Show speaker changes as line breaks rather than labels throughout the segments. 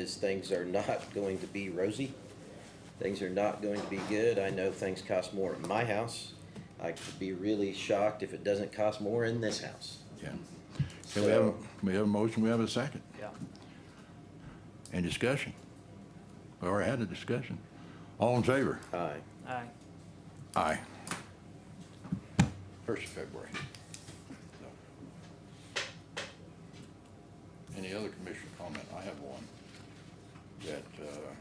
is things are not going to be rosy. Things are not going to be good. I know things cost more at my house. I could be really shocked if it doesn't cost more in this house.
Yeah. Can we have,
So-
a- we have a motion, we have a second,
Yeah.
and discussion. We already had a discussion. All in favor?
Aye.
Aye.
Aye. First of February. No. Any other commissioner comment? I have one. That, uh,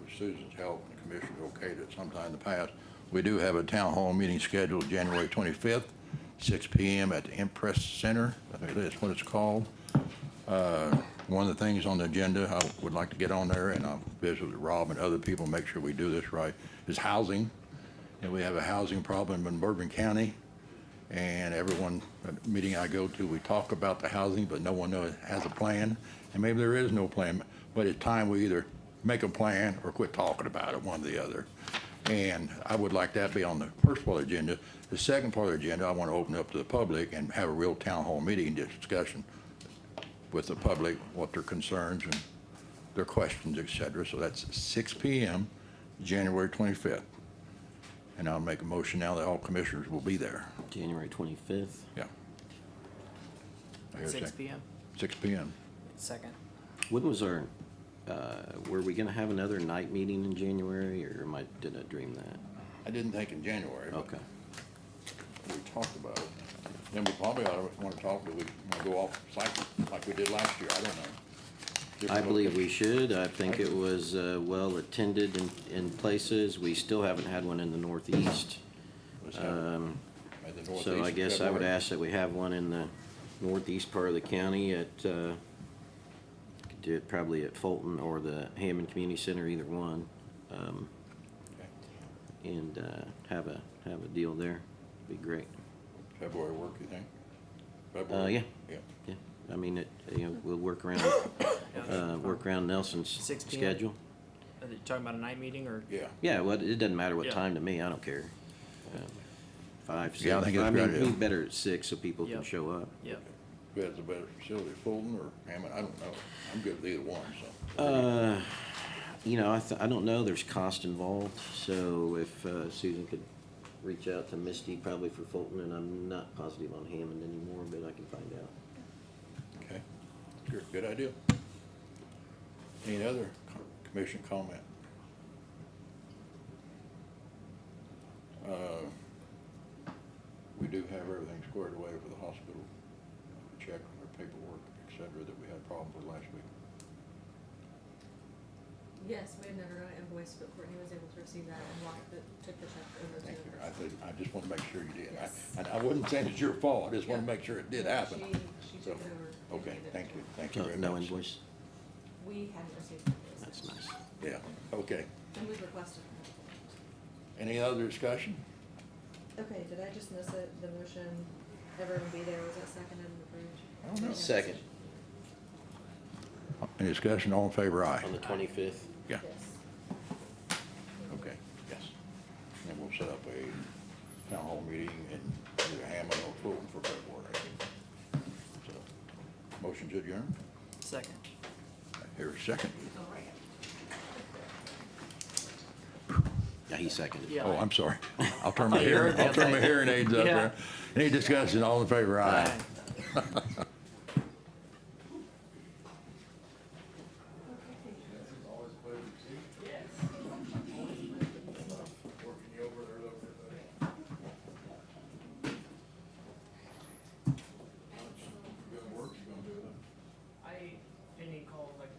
with Susan's help and the commissioner okayed it sometime in the past, we do have a town hall meeting scheduled January twenty-fifth, six P M. at the Impress Center. I think that's what it's called. Uh, One of the things on the agenda I would like to get on there, and I'll visit with Rob and other people, make sure we do this right, is housing. And we have a housing problem in Bourbon County. And everyone, at the meeting I go to, we talk about the housing, but no one knows, has a plan. And maybe there is no plan, but it's time we either make a plan or quit talking about it, one or the other. And I would like that be on the first part of the agenda. The second part of the agenda, I want to open up to the public and have a real town hall meeting discussion with the public, what their concerns and their questions, et cetera. So that's six P M, January twenty-fifth. And I'll make a motion now that all commissioners will be there.
January twenty-fifth.
Yeah. I hear a
Six
second.
PM.
Six P M.
Second.
When was our, uh, were we gonna have another night meeting in January, or am I, did I dream that?
I didn't think in January, but
Okay.
we talked about it. Then we probably ought to want to talk, do we want to go off cycle like we did last year? I don't know.
I
Different
believe
location.
we should. I think it was uh, well-attended in, in places. We still haven't had one in the northeast.
Let's have it at the
So I
northeast
guess I would
February.
ask that we have one in the northeast part of the county at, uh, could do it probably at Fulton or the Hammond Community Center, either one, um,
Okay.
and uh, have a, have a deal there. Be great.
February work, you think?
Uh,
February?
yeah.
Yeah.
Yeah, I mean, it, you know, we'll work around, uh, work around Nelson's
6 p.m.
schedule.
Are you talking about a night meeting or?
Yeah.
Yeah, well, it doesn't matter what
Yeah.
time to me, I don't care. Um, Five, six,
Yeah, I
I
think it's a good
mean,
idea.
be better at six so people can
Yep.
show up.
Yep.
Who has the better facility, Fulton or Hammond? I don't know. I'm good with either one, so.
Uh, you know, I, th- I don't know, there's cost involved, so if uh, Susan could reach out to Misty probably for Fulton, and I'm not positive on Hammond anymore, but I can find out.
Okay. Sure, good idea. Any other co- commission comment? Uh, We do have everything squared away for the hospital, check on their paperwork, et cetera, that we had problems with last week.
Yes, we had never got an invoice, but Courtney was able to receive that and walked the, took the check over to
Thank you.
her.
I think, I just want to make sure you did.
Yes.
I, and I wouldn't saying it's your fault, I just want to
Yeah.
make sure it did happen.
She, she
So,
took it over. and
Okay,
handed it
thank
to
you,
her.
thank you
Uh, No,
very much.
no invoice,
We hadn't received an invoice.
that's nice.
Yeah, okay.
And we requested. an
Any other discussion?
invoice. Okay, did I just miss it? The motion, everyone be there, was that seconded and approved?
I don't know.
Second,
Any discussion, all in favor, aye?
on the twenty-fifth,
Yeah,
Yes.
okay, yes. And then we'll set up a town hall meeting in either Hammond or Fulton for February. So, Motion to adjourn?
Second.
Here, second.
yeah, he seconded.
Yeah.
Oh, I'm sorry. I'll turn
I
my
thought you
hearing,
heard
I'll turn my
that.
hearing aids up
Yeah.
there. Any discussion, all in favor, aye?